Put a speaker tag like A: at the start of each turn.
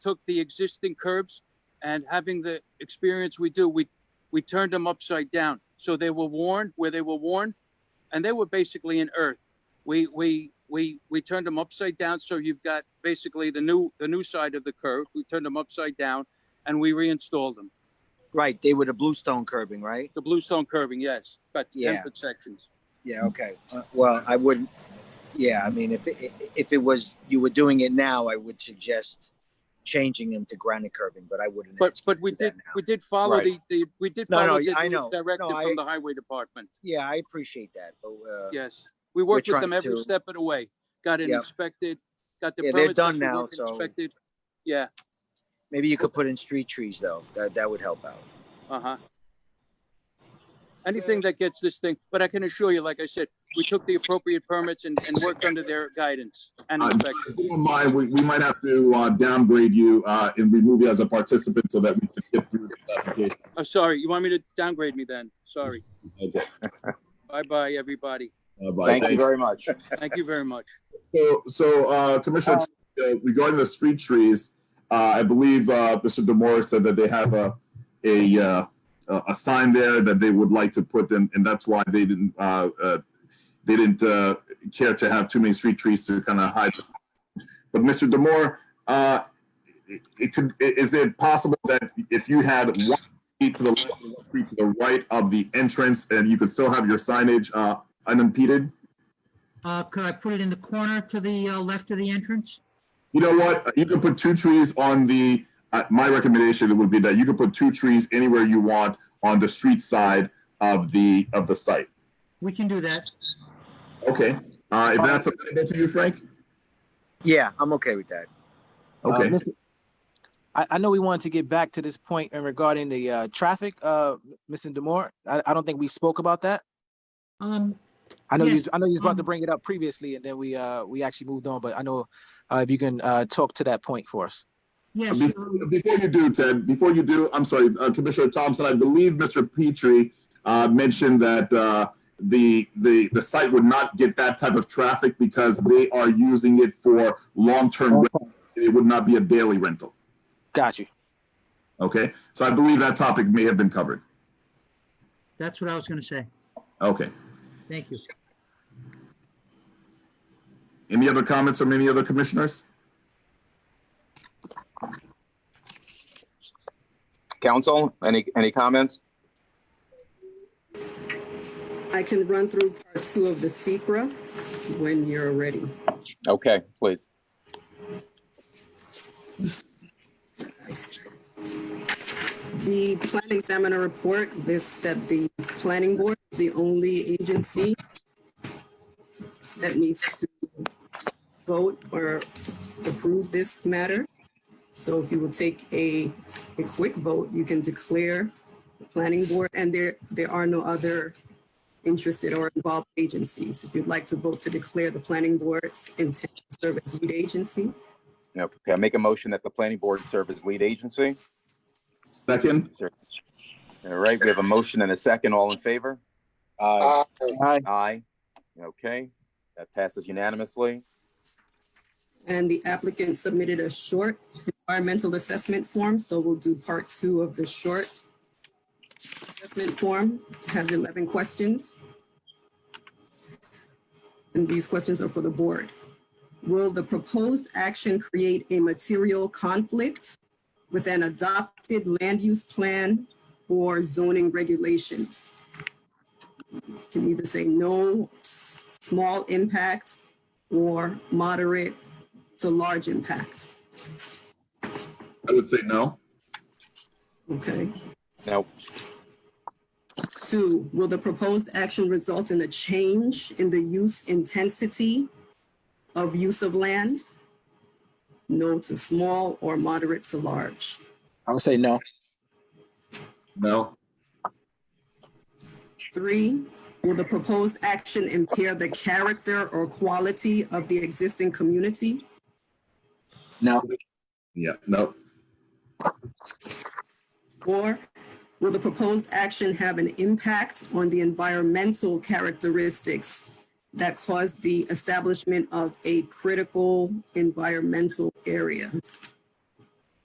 A: took the existing curbs and having the experience we do, we, we turned them upside down. So they were worn where they were worn and they were basically in earth. We, we, we, we turned them upside down. So you've got basically the new, the new side of the curb. We turned them upside down and we reinstalled them.
B: Right, they were the bluestone curbing, right?
A: The bluestone curving, yes, but
B: Yeah.
A: tempered sections. Mm.
B: Yeah, okay. Uh, Well, I wouldn't, yeah, I mean, if, it- if it was, you were doing it now, I would suggest changing them to granite curbing, but I wouldn't.
A: But,
B: ask you
A: but
B: to
A: we
B: do that
A: did,
B: now.
A: we did follow
C: Right.
A: the, the, we did
B: No,
A: follow
B: no, I know.
A: the directive
B: No, I-
A: from the highway department.
B: Yeah, I appreciate that, but, uh,
A: Yes, we worked with
B: trying
A: them every
B: to-
A: step of the way. Got it
B: Yeah.
A: inspected, got the
B: Yeah, they're
A: permits.
B: done
A: that we
B: now,
A: wanted
B: so-
A: inspected. Yeah,
B: maybe you could put in street trees though, that, that would help out.
A: uh-huh. Anything that gets this thing, but I can assure you, like I said, we took the appropriate permits and, and worked under their guidance and
C: Uh,
A: inspection.
C: If you don't mind, we, we might have to uh, downgrade you uh, and remove you as a participant so that we can get through this application.
A: I'm Oh, sorry, you want me to downgrade me then? Sorry.
C: Okay.
A: Bye-bye, everybody.
C: Uh, bye.
D: Thank you
C: Thanks.
D: very much.
A: Thank you very much.
C: So, so uh, Commissioner, uh, regarding the street trees, uh, I believe uh, Mr. Demore said that they have a a uh, a a sign there that they would like to put in, and that's why they didn't uh, uh, they didn't uh, care to have too many street trees to kind of hide. But Mr. Demore, uh, it, it could, i- is it possible that if you had one tree to the left and one tree to the right of the entrance, and you could still have your signage uh, unimpeded?
E: Uh, could I put it in the corner to the uh, left of the entrance?
C: You know what? You can put two trees on the, uh, my recommendation would be that you can put two trees anywhere you want on the street side of the, of the site.
E: We can do that.
C: Okay, uh, if that's available to you, Frank?
B: Yeah, I'm okay with that.
F: Uh,
C: Okay,
F: Mr. I, I know we wanted to get back to this point in regarding the uh, traffic, uh, Mr. Demore. I, I don't think we spoke about that.
E: Um,
F: I know you,
E: Yeah,
F: was- I know you was about to
E: um,
F: bring it up previously, and then we uh, we actually moved on. But I know uh, if you can uh, talk to that point for us.
E: yes,
C: Be-
E: um,
C: before you do, Ted, before you do, I'm sorry, uh, Commissioner Thompson, I believe Mr. Petrie, uh, mentioned that, uh, the, the, the site would not get that type of traffic because they are using it for long-term, rental. it would not be a daily rental,
F: Got you.
C: okay? So I believe that topic may have been covered.
E: that's what I was gonna say.
C: Okay.
E: Thank you.
C: Any other comments from any other commissioners?
D: Council, any, any comments?
G: I can run through part two of the secra when you're ready.
D: Okay, please.
G: The plan examiner report, this, that the planning board is the only agency that needs to vote or approve this matter. So if you will take a, a quick vote, you can declare the planning board, and there, there are no other interested or involved agencies. If you'd like to vote to declare the planning board's intent to serve as lead agency,
D: Okay, I make a motion that the planning board serve as lead agency.
C: Second,
D: All right, we have a motion and a second. All in favor?
H: Aye.
D: Aye. Okay, that passes unanimously.
G: And the applicant submitted a short environmental assessment form, so we'll do part two of the short assessment form, It has eleven questions. And these questions are for the board. Will the proposed action create a material conflict with an adopted land use plan or zoning regulations? You Can either say no, s- small impact, or moderate to large impact.
C: I would say no.
G: Okay.
D: Now,
G: Two, will the proposed action result in a change in the use intensity of use of land? No to small or moderate to large.
F: I would say no.
C: No.
G: Three, will the proposed action impair the character or quality of the existing community?
F: No.
C: Yeah, no.
G: Four, will the proposed action have an impact on the environmental characteristics that cause the establishment of a critical environmental area?